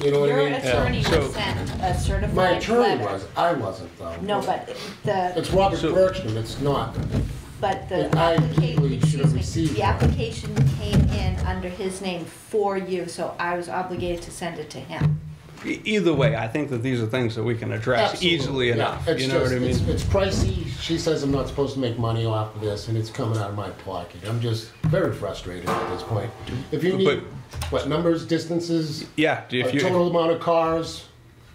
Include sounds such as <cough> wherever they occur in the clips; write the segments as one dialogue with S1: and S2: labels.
S1: You know what
S2: Your
S1: I mean?
S2: attorney
S3: So-
S2: will send a
S1: My
S2: certified
S1: attorney
S2: letter.
S1: was, I wasn't though.
S2: No, but the,
S1: It's Robert
S3: So-
S1: Bergstrom, it's not.
S2: but the
S1: I legally
S2: application,
S1: should have
S2: excuse me,
S1: received
S2: the
S1: one.
S2: application came in under his name for you, so I was obligated to send it to him.
S3: E- Either way, I think that these are things that we can address
S1: Absolutely.
S3: easily
S1: Yeah,
S3: enough.
S1: it's
S3: you know
S1: just-
S3: what I mean?
S1: It's, it's pricey. She says I'm not supposed to make money off of this, and it's coming out of my pocket. I'm just very frustrated at this point. If you need what numbers, distances,
S3: yeah. If
S1: a
S3: you
S1: total amount of cars.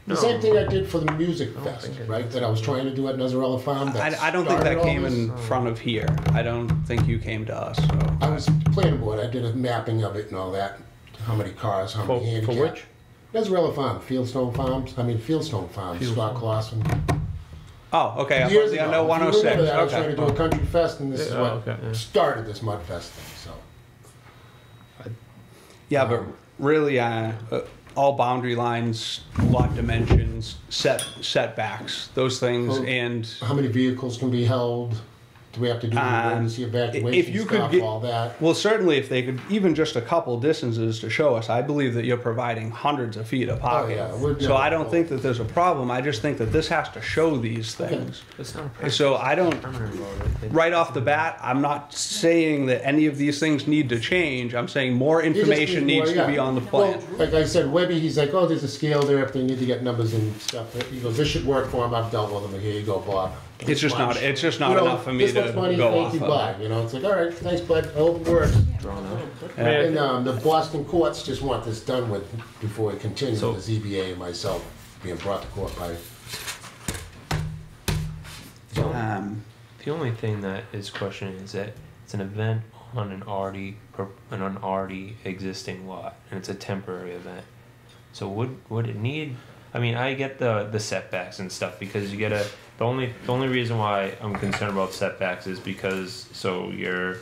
S1: The
S4: No.
S1: same thing I did for the music fest,
S4: think it-
S1: right? That I was trying to do at Nazarella Farm. that
S3: I, I don't think
S1: started
S3: that
S1: all
S3: came
S1: this.
S3: in front of here. I don't think you came to us. So.
S1: I was planning board. I did a mapping of it and all that. How many cars? How
S4: For-
S1: many
S4: for
S1: handicapped?
S4: which?
S1: Nazarella Farm, Fieldstone Farms. I mean Fieldstone Farms, Scott Clausen.
S3: Oh, okay. I'm
S1: Years
S3: on the-
S1: ago,
S3: no,
S1: If you
S3: 106.
S1: remember that, I was trying to
S3: okay.
S1: do a country fest, and this is
S4: Yeah,
S1: what
S4: okay, yeah.
S1: started this mud fest thing. So
S3: Yeah, but really, uh, uh, all boundary lines, lot dimensions, set setbacks, those things,
S1: Well,
S3: and
S1: how many vehicles can be held? Do we have to do
S3: Um,
S1: emergency evacuation
S3: if you could
S1: stuff?
S3: get-
S1: all that.
S3: well, certainly, if they could even just a couple distances to show us, I believe that you're providing hundreds of feet of pocket.
S1: Oh, yeah, we're
S3: so
S1: never
S3: I don't
S1: full.
S3: think that there's a problem. I just think that this has to show these things.
S4: It's not a permanent,
S3: So I don't
S4: permanent road. It-
S3: right off the bat, I'm not saying that any of these things need to change. I'm saying more
S1: You just
S3: information
S1: need more,
S3: needs to
S1: yeah.
S3: be on the
S1: Well,
S3: plan.
S1: like I said, Webby, he's like, oh, there's a scale there if they need to get numbers and stuff. He goes, this should work for him. I've dealt with him. Here you go, Bob.
S3: It's just not-
S1: Lunch.
S3: it's just not
S1: You know,
S3: enough for me
S1: this
S3: to
S1: much money,
S3: go
S1: thank
S3: off
S1: you,
S3: of.
S1: bye. You know, it's like, all right, thanks, bud. I hope it works.
S4: Drawn out.
S3: Yeah.
S1: And um, the Boston courts just want this done with before it continues.
S4: So-
S1: the ZBA and myself being brought to court by.
S3: Um,
S4: The only thing that is questioned is that it's an event on an already per- on an already existing lot, and it's a temporary event. So would would it need? I mean, I get the the setbacks and stuff because you get a the only the only reason why I'm concerned about setbacks is because so you're,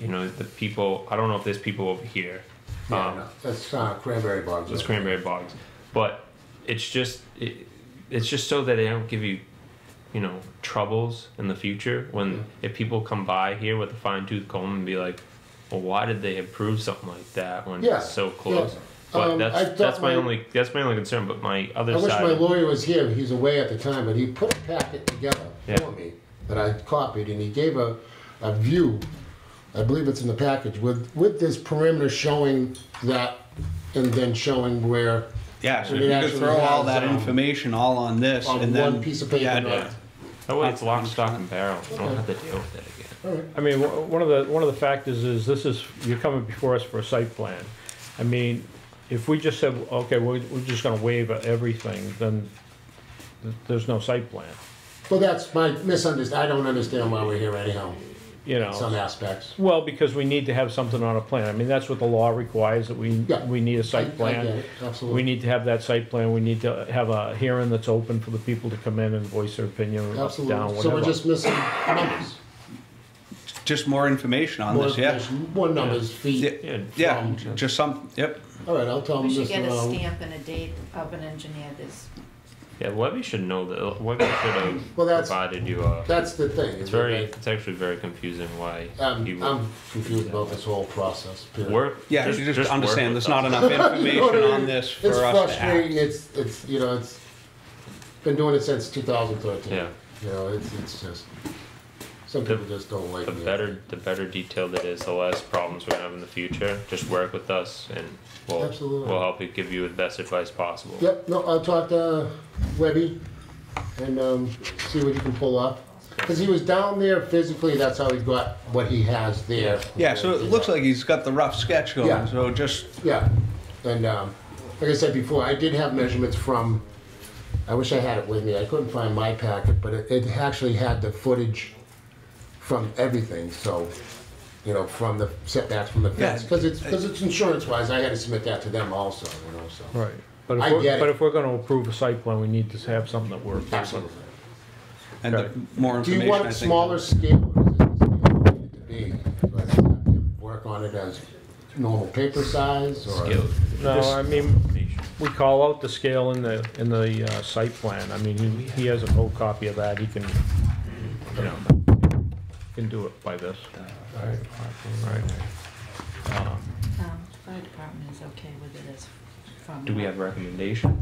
S4: you know, the people. I don't know if there's people over here.
S1: Yeah,
S4: um,
S1: no, that's uh, cranberry bogs.
S4: those cranberry bogs. But it's just it, it's just so that they don't give you, you know, troubles in the future when if people come by here with a fine tooth comb and be like, well, why did they approve something like that when
S1: Yeah,
S4: it's so close?
S1: yeah.
S4: But
S1: Um, I
S4: that's
S1: thought
S4: that's my,
S1: my-
S4: only that's my only concern. But my other
S1: I wish
S4: side,
S1: my lawyer was here. He's away at the time, but he put a packet together
S4: Yeah.
S1: for me that I copied, and he gave a, a view. I believe it's in the package with with this perimeter showing that, and then showing where.
S3: yeah, so
S1: It
S3: if you could
S1: actually
S3: throw all
S1: has,
S3: that
S1: um,
S3: information all on this
S1: on
S3: and then
S1: one piece of paper,
S3: Yeah,
S1: not-
S4: yeah. That way oh, it's lock, stock, and barrel. You don't have to deal with it again.
S1: Oh.
S5: I mean, wh- one of the, one of the factors is this is, you're coming before us for a site plan. I mean, if we just said, okay, we're, we're just gonna waive everything, then th- there's no site plan,
S1: Well, that's my misunderstanding. I don't understand why we're here anyhow.
S5: you know?
S1: Some aspects.
S5: Well, because we need to have something on a plan. I mean, that's what the law requires, that we,
S1: Yeah.
S5: we need a
S1: I- I
S5: site
S1: get
S5: plan.
S1: it, absolutely.
S5: We need to have that site plan, we need to have a hearing that's open for the people to come in and voice their opinion, up,
S1: Absolutely.
S5: down,
S1: so we're
S5: whatever.
S1: just missing numbers.
S3: just more information on
S1: More
S3: this. Yeah.
S1: information, more numbers, feet.
S3: Yeah,
S4: Yeah,
S3: yeah,
S1: from-
S3: just some. Yep.
S1: All right, I'll tell him
S2: We should
S1: this.
S2: get a
S1: uh,
S2: stamp and a date of an engineer this.
S4: Yeah, Webby should know that. uh, Webby should have
S1: <clears throat> Well, that's-
S4: provided you a.
S1: That's the thing.
S4: It's
S1: is
S4: very.
S1: that
S4: It's actually very confusing why
S1: I- I'm,
S4: you
S1: I'm confused about this whole process. period.
S4: work.
S3: Yeah, you just,
S4: work
S3: understand
S4: with
S3: there's not
S4: us.
S3: enough
S1: You know <laughs> what I
S3: information
S1: mean? <laughs>
S3: on this for
S1: it's
S3: us to
S1: frustrating.
S3: act.
S1: It's it's you know it's been doing it since 2013.
S4: Yeah.
S1: You know it's it's just some
S4: The-
S1: people just don't like
S4: the
S1: me.
S4: better the better detailed it is, the less problems we're gonna have in the future. Just work with us, and we'll
S1: Absolutely.
S4: we'll help you give you the best advice possible.
S1: Yep. No, I'll talk to Webby and um, see what he can pull up. Because he was down there physically, that's how he got what he has there.
S3: Yeah, so it looks like he's got the rough sketch going.
S1: Yeah.
S3: So just
S1: Yeah, and um, like I said before, I did have measurements from, I wish I had it with me, I couldn't find my packet, but it, it actually had the footage from everything, so, you know, from the setbacks from the fence,
S3: Yeah.
S1: because it's, because it's insurance wise, I had to submit that to them also, you know, so.
S5: Right, but
S1: I
S5: if
S1: get
S5: we're, but
S1: it.
S5: if we're gonna approve a site plan, we need to have something that we're.
S1: Absolutely.
S3: and
S5: Okay.
S3: the more
S1: Do
S3: information.
S1: you want
S3: I
S1: it
S3: think-
S1: smaller scale? or is it the scale it needed to be? Let's have them Work on it as normal paper size or?
S4: Skilled.
S5: No, I mean, We call out the scale in the, in the uh, site plan, I mean, he, he has a whole copy of that, he can, you know, can do it by this.
S4: Right.
S5: Um,
S2: Um, fire department is okay with it as from.
S4: Do we have recommendations?